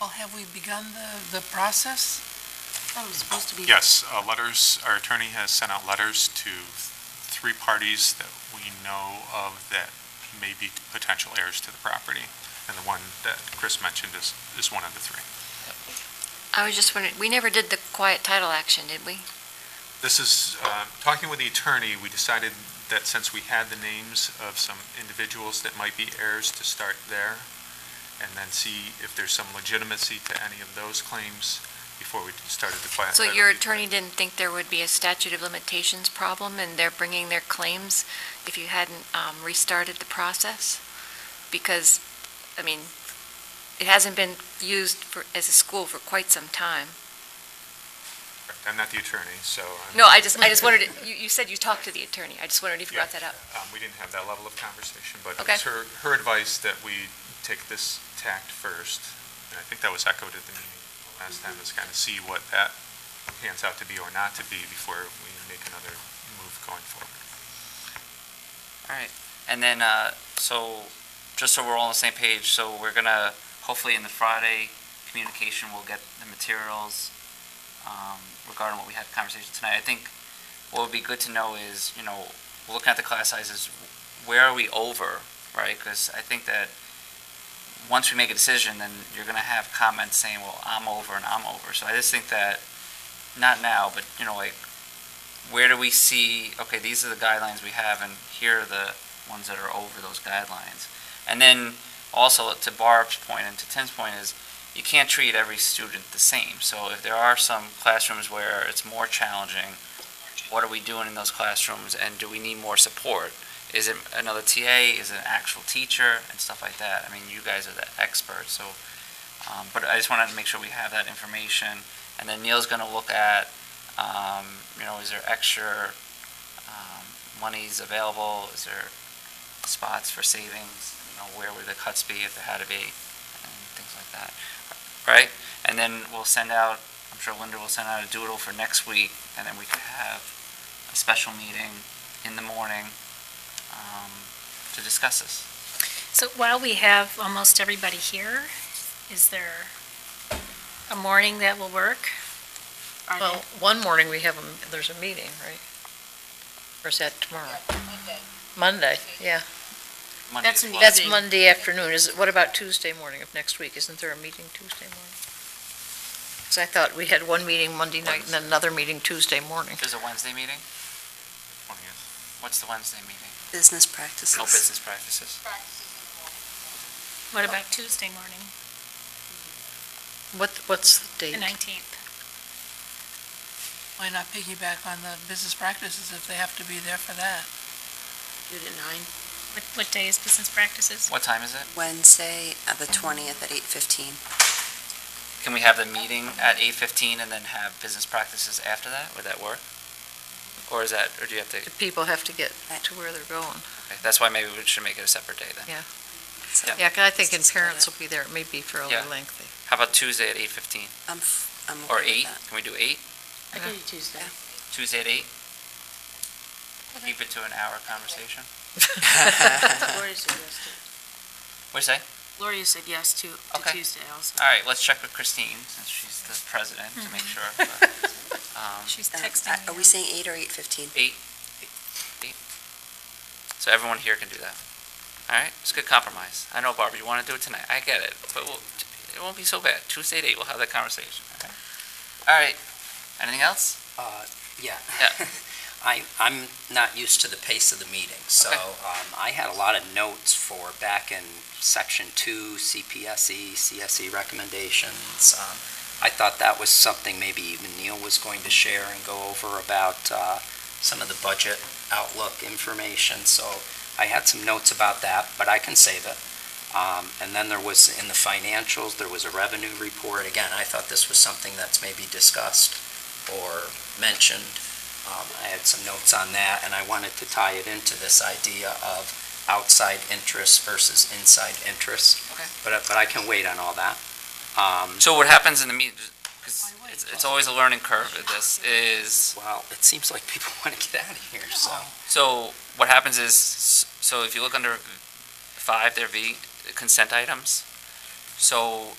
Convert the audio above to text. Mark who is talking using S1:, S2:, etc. S1: Well, have we begun the, the process? Thought it was supposed to be.
S2: Yes, uh, letters, our attorney has sent out letters to three parties that we know of that may be potential heirs to the property, and the one that Chris mentioned is, is one of the three.
S3: I was just wondering, we never did the quiet title action, did we?
S2: This is, uh, talking with the attorney, we decided that since we had the names of some individuals that might be heirs, to start there, and then see if there's some legitimacy to any of those claims before we started the class.
S3: So your attorney didn't think there would be a statute of limitations problem and they're bringing their claims if you hadn't um, restarted the process? Because, I mean, it hasn't been used for, as a school for quite some time.
S2: I'm not the attorney, so. I'm-
S3: No, I just, I just wondered, you, you said you talked to the attorney. I just wondered if you brought that up.
S2: Um, We didn't have that level of conversation, but it
S3: Okay.
S2: was her, her advice that we take this tact first, and I think that was echoed at the meeting last time, is kind of see what that pans out to be or not to be before we make another move going forward.
S4: And then, uh, so, just so we're all on the same page, so we're gonna, hopefully in the Friday communication, we'll get the materials, um, regarding what we had a conversation tonight. I think what would be good to know is, you know, looking at the class sizes, where are we over, right? Because I think that once we make a decision, then you're gonna have comments saying, well, I'm over and I'm over. So I just think that, not now, but, you know, like, where do we see, okay, these are the guidelines we have, and here are the ones that are over those guidelines. And then also to Barb's point and to Tim's point is you can't treat every student the same. So if there are some classrooms where it's more challenging, what are we doing in those classrooms and do we need more support? Is it another TA? Is it an actual teacher and stuff like that? I mean, you guys are the experts, so, um, but I just wanted to make sure we have that information. And then Neil's gonna look at, um, you know, is there extra, um, monies available? Is there spots for savings, you know, where would the cuts be if there had to be, and things like that, right? And then we'll send out, I'm sure Linda will send out a doodle for next week, and then we could have a special meeting in the morning, um, to discuss this.
S5: So while we have almost everybody here, is there a morning that will work? Are
S6: Well,
S5: there-
S6: one morning we have, a there's a meeting, right? Or is that tomorrow? Monday, yeah.
S4: Monday
S1: That's
S4: as
S1: an
S4: well.
S6: That's
S1: Monday.
S6: Monday afternoon. Is, what about Tuesday morning of next week? Isn't there a meeting Tuesday morning? Because I thought we had one meeting Monday night and then another meeting Tuesday morning.
S4: There's a Wednesday meeting?
S2: Morning, yes.
S4: What's the Wednesday meeting?
S7: Business
S4: No
S7: practices.
S4: business practices.
S5: What about Tuesday morning,
S6: What, what's the date?
S5: the 19th?
S1: Why not piggyback on the business practices if they have to be there for that?
S7: Do it at nine.
S5: What, what day is business practices?
S4: What time is it?
S7: Wednesday, uh, the 20th at 8:15.
S4: Can we have the meeting at eight fifteen and then have business practices after that? Would that work? Or is that, or do you have to?
S6: Do People have to get to where they're going.
S4: Okay, That's why maybe we should make it a separate day then.
S7: So
S6: Yeah, 'cause I think in
S7: Let's do
S6: parents
S7: that.
S6: will be there. It may be fairly
S4: Yeah.
S6: lengthy.
S4: How about Tuesday at eight fifteen,
S7: I'm, f- I'm
S4: or
S7: okay
S4: eight?
S7: with that.
S4: Can we do eight?
S6: I can do
S7: Tuesday.
S4: Tuesday at eight? Keep it to an hour conversation.
S8: Gloria said yes
S4: What'd you say?
S8: to, Gloria said yes to, to
S4: Okay.
S8: Tuesday also.
S4: All right, let's check with Christine, since she's the president, to make sure. but, um,
S5: She's
S7: Uh,
S5: texting
S7: I- Are
S5: me.
S7: we saying eight or 8:15?
S4: So everyone here can do that. All right, it's a good compromise. I know, Barbara, you want to do it tonight. I get it, but we'll, it won't be so bad. Tuesday at eight, we'll have that conversation. okay? All right, anything else?
S9: Uh, Yeah.
S4: Yeah.
S9: I, I'm not used to the pace of the meeting, so um, I had a lot of notes for back in section two, CPSE, CSE E recommendations. Um, I thought that was something maybe even Neil was going to share and go over about uh, some of the budget outlook information, so I had some notes about that, but I can save it. Um, And then there was, in the financials, there was a revenue report. Again, I thought this was something that's maybe discussed or mentioned. Um, I had some notes on that, and I wanted to tie it into this idea of outside interests versus inside interests.
S4: Okay.
S9: But, I- but I can wait on all that. Um,
S4: So what happens in the meet, because it's, it's always a learning curve with this, is,
S9: Well, it seems like people want to get out of here, so.
S4: so what happens is, so if you look under five, there V, consent items. So